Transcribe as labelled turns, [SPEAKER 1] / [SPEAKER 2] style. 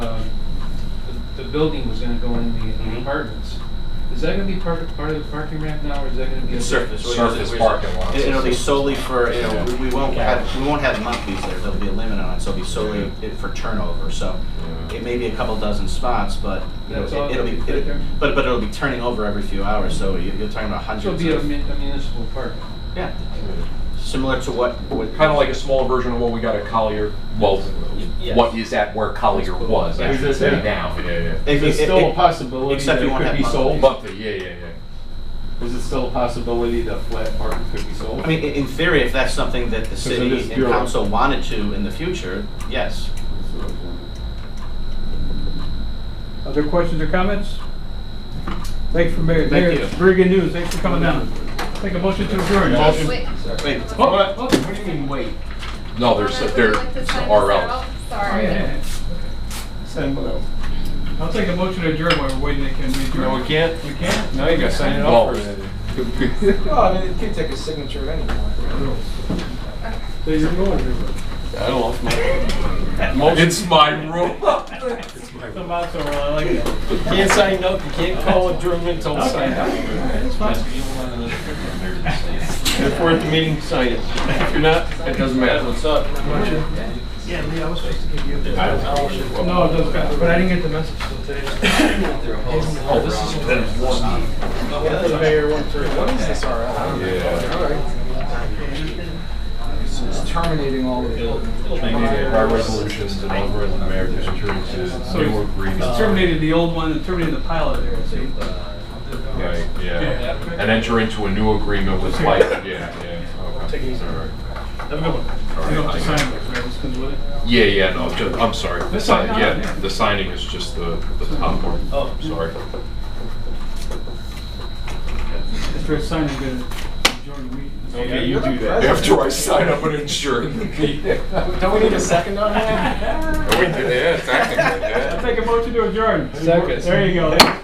[SPEAKER 1] um, building was gonna go in the- the
[SPEAKER 2] Mhm.
[SPEAKER 1] apartments. Is that gonna be part of, part of the parking ramp now, or is that gonna be? a-
[SPEAKER 2] Surface. we'll use it-
[SPEAKER 3] Surface
[SPEAKER 2] we'll use it.
[SPEAKER 3] parking lot.
[SPEAKER 2] It- It'll be solely for, you know, we- we won't
[SPEAKER 3] Yeah.
[SPEAKER 2] have, we won't have monthlies there, there'll be a limit on it, so it'll be solely it- for turnover, so
[SPEAKER 3] Yeah.
[SPEAKER 2] it may be a couple dozen spots, but you know,
[SPEAKER 1] That's all
[SPEAKER 2] it- it'll be,
[SPEAKER 1] that'll be
[SPEAKER 2] it'll-
[SPEAKER 1] there?
[SPEAKER 2] but, but it'll be turning over every few hours, so you- you're talking about
[SPEAKER 1] So it'll
[SPEAKER 2] hundreds
[SPEAKER 1] be a
[SPEAKER 2] of.
[SPEAKER 1] mun- a municipal park.
[SPEAKER 2] Yeah, similar to what, what.
[SPEAKER 4] Kind of like a small version of what we got at Collier, well,
[SPEAKER 2] Yes.
[SPEAKER 4] what is at where Collier was,
[SPEAKER 2] Yeah.
[SPEAKER 4] that's the
[SPEAKER 5] Yeah.
[SPEAKER 4] city now.
[SPEAKER 3] Yeah, yeah.
[SPEAKER 5] Is
[SPEAKER 2] If-
[SPEAKER 5] it
[SPEAKER 2] if-
[SPEAKER 5] still a
[SPEAKER 2] if-
[SPEAKER 5] possibility
[SPEAKER 2] except
[SPEAKER 5] that
[SPEAKER 2] you
[SPEAKER 5] it
[SPEAKER 2] won't
[SPEAKER 5] could
[SPEAKER 2] have
[SPEAKER 5] be
[SPEAKER 2] monthly.
[SPEAKER 5] sold?
[SPEAKER 3] Monthly, yeah, yeah, yeah.
[SPEAKER 5] Is it still a possibility that flat parking could be sold?
[SPEAKER 2] I mean, i- in theory, if that's something that the
[SPEAKER 5] it is
[SPEAKER 2] city and
[SPEAKER 5] Europe.
[SPEAKER 2] council wanted to in the future, yes.
[SPEAKER 6] oh.
[SPEAKER 7] Other questions or comments? Thanks for Mayor.
[SPEAKER 2] Thank
[SPEAKER 7] Mayor,
[SPEAKER 2] you.
[SPEAKER 7] Very good news. Thanks for coming down. Take a motion to adjourn.
[SPEAKER 8] Wait,
[SPEAKER 2] Wait,
[SPEAKER 7] Oh,
[SPEAKER 5] What, what do you mean wait?
[SPEAKER 4] No, there's,
[SPEAKER 8] Connor, would you
[SPEAKER 4] there,
[SPEAKER 8] like to sign
[SPEAKER 4] are
[SPEAKER 8] this
[SPEAKER 4] relevant.
[SPEAKER 8] out?
[SPEAKER 7] oh,
[SPEAKER 8] Sorry.
[SPEAKER 7] yeah.
[SPEAKER 5] Send below.
[SPEAKER 7] I'll take a motion to adjourn while we're waiting. They Can we adjourn?
[SPEAKER 5] No, we can't.
[SPEAKER 7] We can't?
[SPEAKER 5] No, you gotta sign it
[SPEAKER 4] Well,
[SPEAKER 5] off first.
[SPEAKER 6] Well, I mean, it could take a signature at any point, right?
[SPEAKER 5] So you're going.
[SPEAKER 4] I lost my. It's my rule.
[SPEAKER 7] The motto, I uh, like it.
[SPEAKER 6] Can't sign up, you can't call a German until it's signed up.
[SPEAKER 7] That's fine.
[SPEAKER 6] If we're at the meeting, sign it. If you're not, it doesn't matter. What's up?
[SPEAKER 7] No, it does count, but I didn't get the message till today.
[SPEAKER 4] Oh, this is one.
[SPEAKER 6] The mayor went through. What is this RL?
[SPEAKER 3] Yeah.
[SPEAKER 6] All right. It's terminating all of
[SPEAKER 3] They need
[SPEAKER 6] it.
[SPEAKER 3] our resolutions and over in the mayor district to
[SPEAKER 7] So
[SPEAKER 3] newer
[SPEAKER 7] it's it's terminated the old one and terminated the pilot there, see?
[SPEAKER 3] Right, yeah. And enter into a new agreement with Mike, yeah, yeah. Take it easy.
[SPEAKER 7] Have a good one. You don't have to sign it, right? This comes with it.
[SPEAKER 3] Yeah, yeah, no, ju- I'm sorry. The
[SPEAKER 7] That's
[SPEAKER 3] sign,
[SPEAKER 7] fine.
[SPEAKER 3] yeah, the signing is just the, the top part. Oh. Sorry.
[SPEAKER 7] After it's signed, you're gonna adjourn the meeting.
[SPEAKER 5] Okay, you do that.
[SPEAKER 3] After I sign up an insurance.
[SPEAKER 6] Don't we need a second on that?
[SPEAKER 3] Yeah, technically, yeah.
[SPEAKER 7] I'll take a motion to adjourn.
[SPEAKER 1] Second.
[SPEAKER 7] There you go.